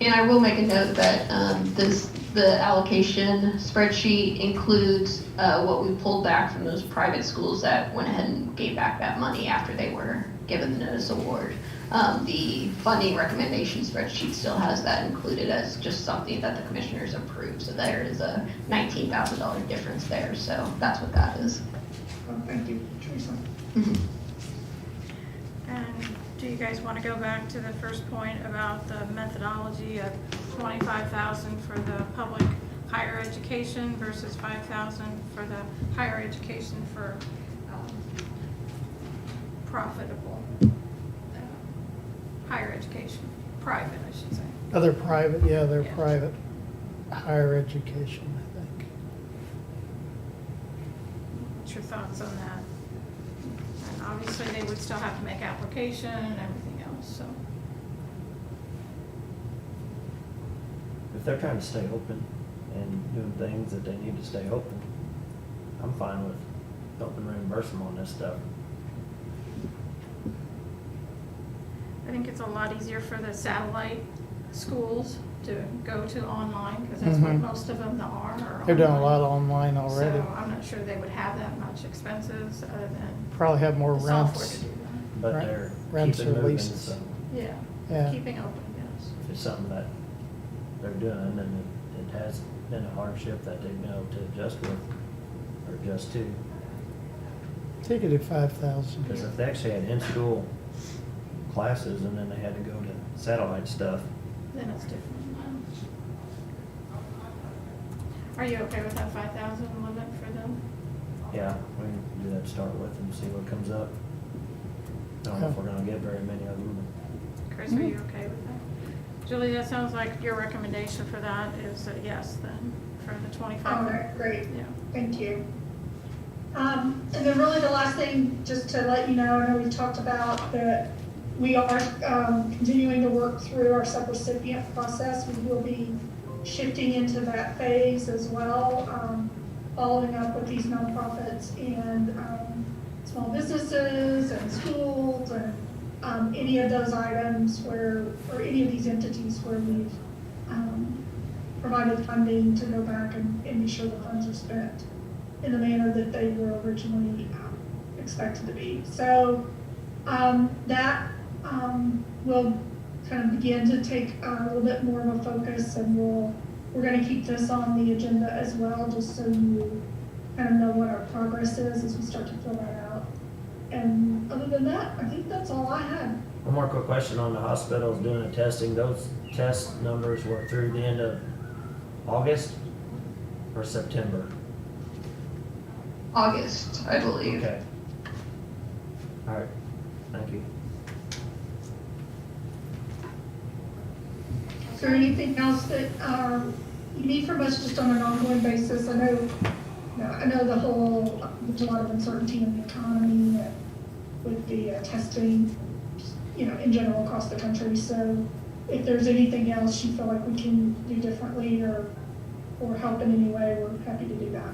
And I will make a note that um, this, the allocation spreadsheet includes uh, what we pulled back from those private schools that went ahead and gave back that money after they were given the notice award. Um, The funding recommendation spreadsheet still has that included as just something that the commissioners approved. So there is a $19,000 difference there, so that's what that is. Uh, Thank you, Teresa. And do you guys want to go back to the first point about the methodology of twenty-five thousand for the public higher education versus five thousand for the higher education for um, profitable uh, higher education, private, I should say. Oh, they're private, yeah, they're Yeah. private, higher education, I think. What's your thoughts on that? And obviously, they would still have to make application and everything else, so. If they're trying to stay open and doing things that they need to stay open, I'm fine with helping reimburse them on this stuff. I think it's a lot easier for the satellite schools to go to online, because that's what Mhm. most of them are. are They're doing a lot online. online already. So uh, I'm not sure they would have that much expenses other than Probably have more the software to rents. do that. But Right. they're Rents keeping or moving, leases. so Yeah, Yeah, keeping open, yes. if it's something that they're doing and it, it has been a hardship that they've been able to adjust with or adjust to. take it at five thousand. Because if they actually had in-school classes and then they had to go to satellite stuff, Then it's different. Are you okay with that five thousand limit for them? yeah, we can do that, to start with and see what comes up. I don't know if we're gonna get very many of them. Chris, are you okay with that? Julie, that sounds like your recommendation for that is a yes then, for the All twenty-five. right, great, Yeah. thank you. Um, and then really the last thing, just to let you know, I know we talked about that we are, um, continuing to work through our subrecipient process. We will be shifting into that phase as well, um, following up with these nonprofits and, um, small businesses and schools and, um, any of those items where, or any of these entities where we've, um, provided funding to go back and, and be sure the funds are spent in the manner that they were originally um, expected to be. So, um, that, um, will kind of begin to take uh, a little bit more of a focus and we'll, we're gonna keep this on the agenda as well, just so you kind of know what our progress is as we start to fill that out. And other than that, I think that's all I had. One more quick question on the hospitals doing the testing. Those test numbers were through the end of August or September? August, I believe. Okay. All right, thank you. Is there anything else that, um, you need from us just on an ongoing basis? I know, no, I know the whole, there's a lot of uncertainty in the economy uh, with the uh, testing, you know, in general across the country. So if there's anything else you feel like we can do differently or, or help in any way, we're happy to do that.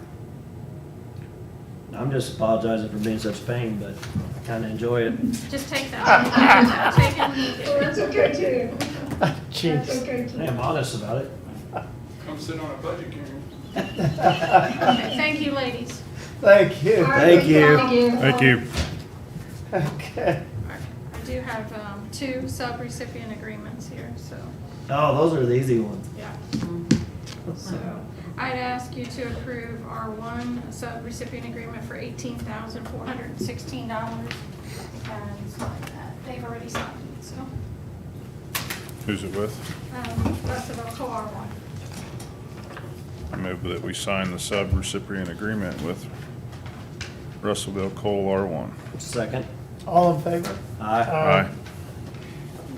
I'm just apologizing for being such a pain, but I kinda enjoy it. Just take that. Take it. Or it's okay too. That's Jeez. okay I too. am honest about it. Come sit on a budget hearing. Okay, Thank you, ladies. Thank you. Thank you. Thank you. Thank you. Okay. I do have um, two sub-recipient agreements here, so, Oh, those are the easy ones. yeah. So I'd ask you to approve our one sub-recipient agreement for eighteen thousand four hundred and sixteen dollars. And sign that. They've already signed it, so. Who's it with? um, That's about COR one. I move that we sign the sub-recipient agreement with Russellville Coal R1. Second? All in favor? Aye. Aye.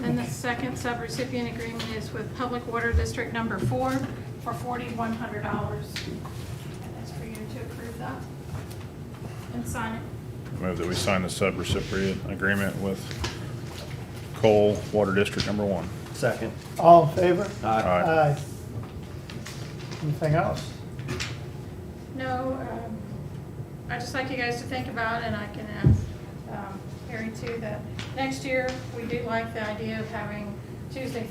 And the second sub-recipient agreement is with Public Water District Number Four for forty-one hundred dollars. And that's for you to approve that and sign it. I Move that we sign the sub-recipient agreement with Coal Water District Number One. Second? All in favor? Aye. Aye. Anything else? No, um, I'd just like you guys to think about, and I can ask um, Harry too, that next year, we do like the idea of having Tuesday,